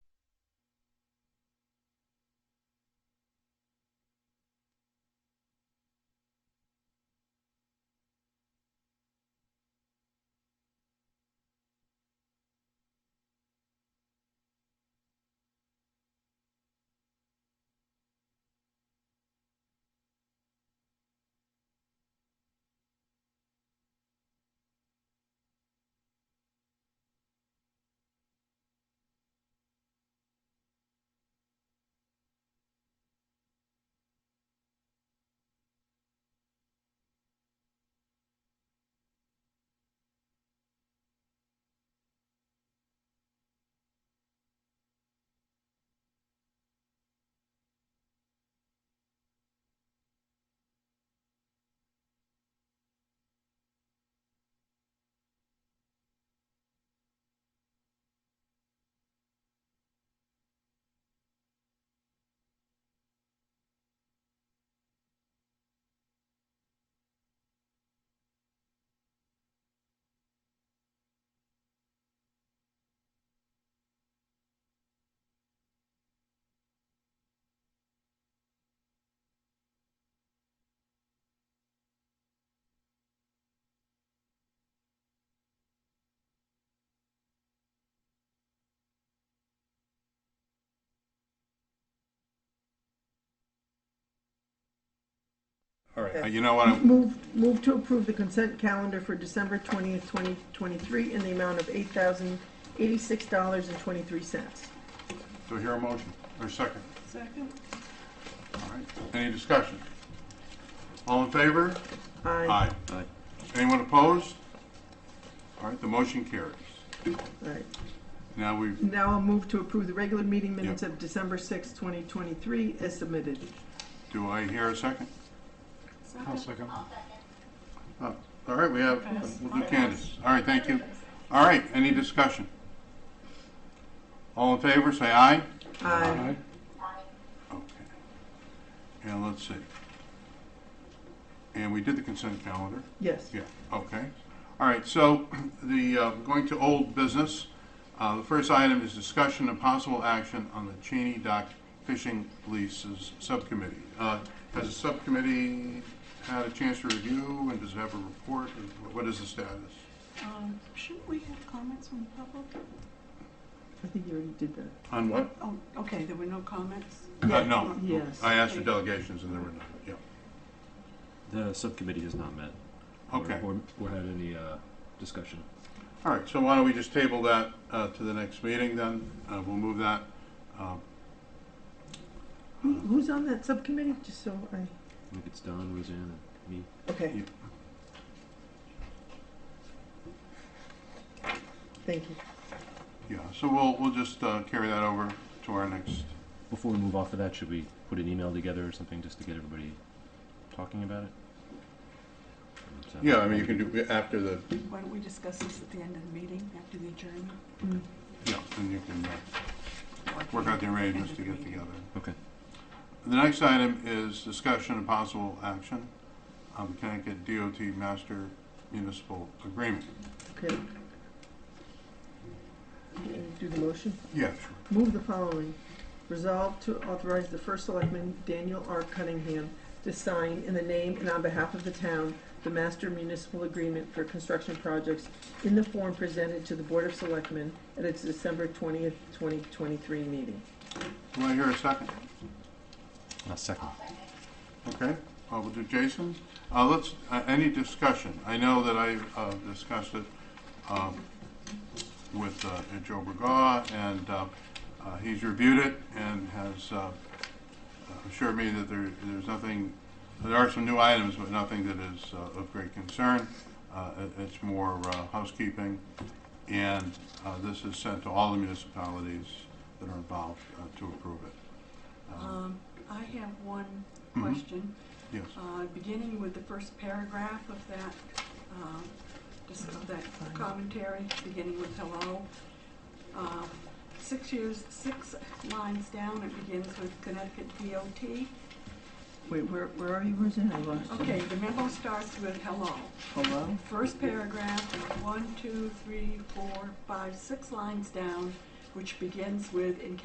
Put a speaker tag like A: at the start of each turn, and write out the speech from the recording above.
A: All right, uh, you know what, I'm-
B: Move, move to approve the consent calendar for December twentieth, twenty twenty-three in the amount of eight thousand eighty-six dollars and twenty-three cents.
A: do I hear a motion, or a second?
C: Second?
A: All right, any discussion? All in favor?
B: Aye.
D: Aye.
A: Anyone opposed? All right, the motion carries.
B: All right.
A: Now we've,
B: Now I'll move to approve the regular meeting minutes
A: Yeah.
B: of December sixth, twenty twenty-three as submitted.
A: do I hear a second?
C: Second.
A: Oh, All right, we have,
C: Yes.
A: we'll do Candace. All right, thank you. All right, any discussion? All in favor, say aye.
B: Aye.
A: Okay. And let's see. And we did the consent calendar.
B: Yes.
A: Yeah, okay. All right, so the, uh, going to old business, uh, the first item is discussion and possible action on the Cheney Dock Fishing Leases Subcommittee. Uh, Has the subcommittee had a chance to review, and does it have a report? What is the status?
C: Um, shouldn't we have comments from the public?
B: I think you already did that.
A: On what?
C: Oh, okay, there were no comments?
A: Uh, No.
B: Yes.
A: I asked for delegations, and there were none, yeah.
D: The subcommittee has not met. or-
A: Okay.
D: Or, or had any, uh, discussion.
A: All right, so why don't we just table that uh, to the next meeting, then? Uh, We'll move that. uh,
B: Who- Who's on that subcommittee, just so I,
D: I think it's Don, Roseanne, and me.
B: okay.
A: Yeah.
B: Thank you.
A: Yeah, so we'll, we'll just uh, carry that over to our next
D: Before we move off of that, should we put an email together or something just to get everybody talking about it? Um, so-
A: Yeah, I mean, you can do, after the,
C: Why don't we discuss this at the end of the meeting, after the adjournment?
A: yeah, then you can uh, work out the arrangements to get together.
D: Okay.
A: The next item is discussion and possible action on the Connecticut DOT Master Municipal Agreement.
B: Okay. Do the motion?
A: Yeah, sure.
B: Move the following. Resolve to authorize the first selectman, Daniel R. Cunningham, to sign in the name and on behalf of the town, the master municipal agreement for construction projects in the form presented to the Board of Selectmen at its December twentieth, twenty twenty-three meeting.
A: Do I hear a second?
D: A second.
A: Okay, uh, we'll do Jason. Uh, Let's, uh, any discussion? I know that I uh, discussed it um, with uh, Joe Bergaw, and uh, uh, he's reviewed it and has uh, assured me that there, there's nothing, there are some new items, but nothing that is uh, of great concern. Uh, it- It's more uh, housekeeping, and uh, this is sent to all the municipalities that are involved uh, to approve it. Um,
C: Um, I have one
A: Mhm.
C: question.
A: Yes.
C: Uh, beginning with the first paragraph of that, um, just of that commentary, beginning with hello. Uh, Six years, six lines down, it begins with Connecticut DOT.
B: Wait, where, where are you, Roseanne? I lost you.
C: Okay, the memo starts with hello.
B: Hello?
C: First paragraph, one, two, three, four, five, six lines down, which begins with, "In